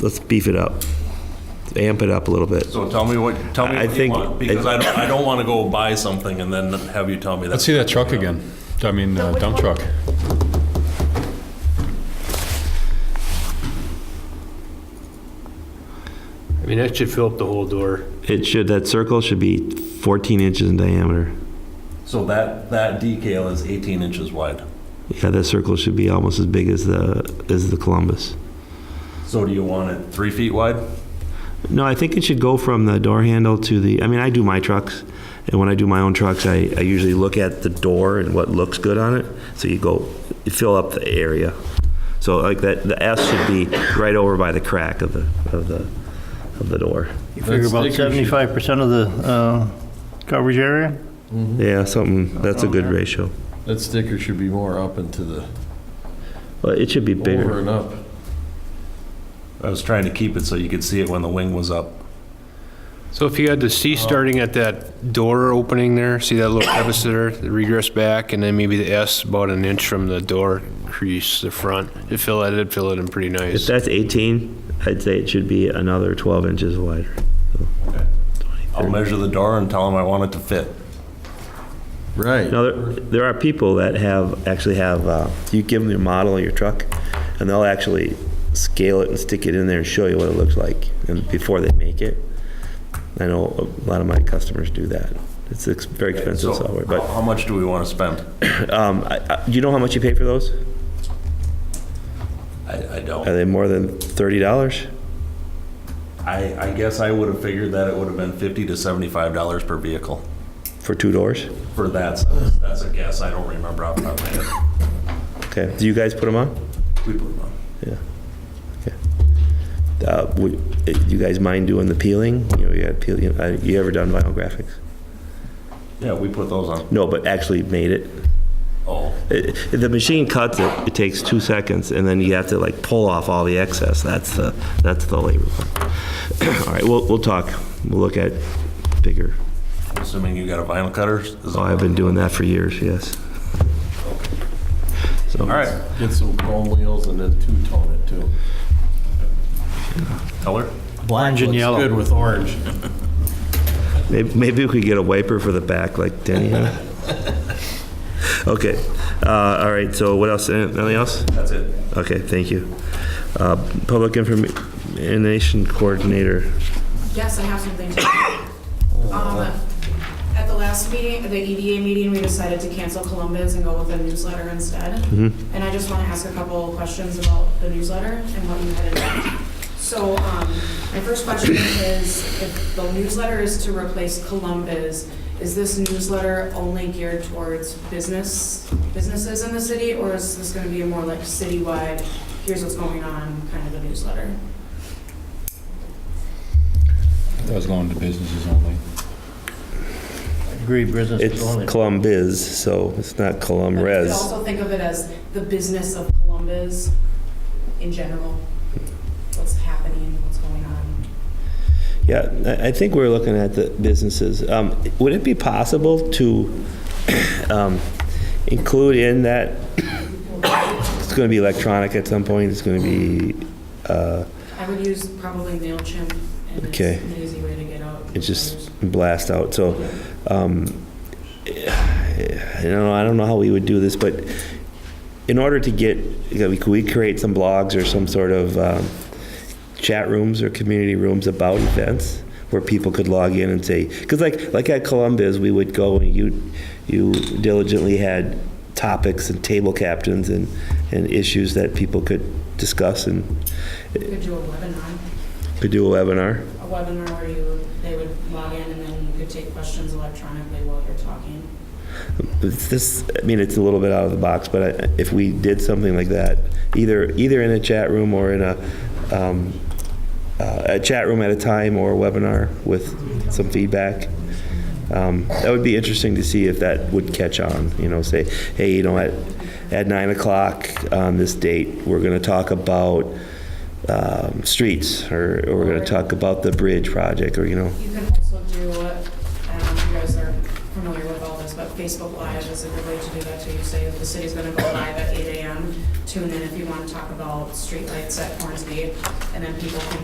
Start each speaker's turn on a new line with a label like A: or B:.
A: let's beef it up, amp it up a little bit.
B: So tell me what, tell me
A: I
B: what you
A: think-
B: want, because I don't, I don't want to go buy something and then have you tell me that.
C: Let's see that truck again. I mean, uh, dump truck.
D: I mean, that should fill up the whole door.
A: It should, that circle should be 14 inches in diameter.
B: So that, that decal is 18 inches wide.
A: Yeah, that circle should be almost as big as the, as the Columbus.
B: So do you want it three feet wide?
A: No, I think it should go from the door handle to the, I mean, I do my trucks, and when I do my own trucks, I, I usually look at the door and what looks good on it, so you go, you fill up the area. So like that, the S should be right over by the crack of the, of the, of the door.
E: You figure about seventy-five percent of the uh, coverage area?
A: Yeah, something, that's a good ratio.
F: That sticker should be more up into the,
A: Well, it should be
F: over
A: bigger.
F: and up.
B: I was trying to keep it so you could see it when the wing was up.
D: So if you had the C starting at that door opening there, see that little crevice there, the regress back, and then maybe the S about an inch from the door crease, the front. It fill it, it'd fill it in pretty
A: If
D: nice.
A: that's 18, I'd say it should be another 12 inches wider.
B: I'll measure the door and tell them I want it to fit.
F: Right.
A: Now, there, there are people that have, actually have, uh, you give them your model of your truck, and they'll actually scale it and stick it in there and show you what it looks like, and before they make it. I know a lot of my customers do that. It's ex- very expensive
B: So
A: software,
B: how-
A: but,
B: How much do we want to spend?
A: um, I, I, do you know how much you pay for those?
B: I, I
A: Are
B: don't.
A: they more than thirty dollars?
B: I, I guess I would have figured that it would have been 50 to 75 dollars per vehicle
A: For two doors?
B: for that. size. That's a guess. I don't remember off the top of my head.
A: Okay, do you guys put them on?
B: We put them on.
A: Yeah. Okay. Uh, would, eh, you guys mind doing the peeling? You know, you had peel, you, uh, you ever done vinyl graphics?
B: Yeah, we put those on.
A: No, but actually made it?
B: Oh,
A: It- The machine cuts it, it takes two seconds, and then you have to like pull off all the excess. That's the, that's the labor part. All right, we'll, we'll talk. We'll look at bigger.
B: assuming you got a vinyl cutter? is-
A: Oh, I've been doing that for years, yes. So,
B: All right,
F: Get some chrome wheels and then two-tone it too.
B: color?
E: Orange and
F: Looks
E: yellow.
F: Good with orange.
A: Maybe, maybe we could get a wiper for the back like Denny had. Okay, uh, all right, so what else, anything else?
B: That's it.
A: Okay, thank you. Uh, Public Information Coordinator,
G: Yes, I have something to Um, At the last meeting, the EDA meeting, we decided to cancel Columbus and go with a newsletter instead. And I just want to ask a couple of questions about the newsletter and what you had in mind. So um, my first question is, if the newsletter is to replace Columbus, is this newsletter only geared towards business, businesses in the city? Or is this going to be a more like citywide, here's what's going on kind of a newsletter?
C: That was going to businesses only.
E: Agree, business
A: it's
E: is only.
A: Columbiz, so it's not Colum
G: But you could
A: Res.
G: also think of it as the business of Columbus in general, what's happening, what's going on.
A: Yeah, I- I think we're looking at the businesses. Um, Would it be possible to um, include in that, it's going to be electronic at some point, it's going to be, uh,
G: I would use probably MailChimp, and it's
A: Okay.
G: an easy way to get out.
A: it just blast out, so, um, I don't know, I don't know how we would do this, but in order to get, you know, we could we create some blogs or some sort of um, chat rooms or community rooms about events where people could log in and say, because like, like at Columbus, we would go and you, you diligently had topics and table captains and, and issues that people could discuss and
G: You could do a webinar,
A: could do a webinar.
G: a webinar where you, they would log in and then you could take questions electronically while you're talking.
A: It's This, I mean, it's a little bit out of the box, but I- if we did something like that, either, either in a chat room or in a, um, uh, a chat room at a time or a webinar with some feedback, um, that would be interesting to see if that would catch on, you know, say, hey, you know, at, at nine o'clock on this date, we're going to talk about um, streets, or, or we're going to talk about the bridge project, or, you know,
G: You can also do, um, you guys are familiar with all this, but Facebook Live is a good way to do that too. You say if the city's gonna go live at eight AM, tune in if you wanna talk about streetlights at Hornsby, and then people can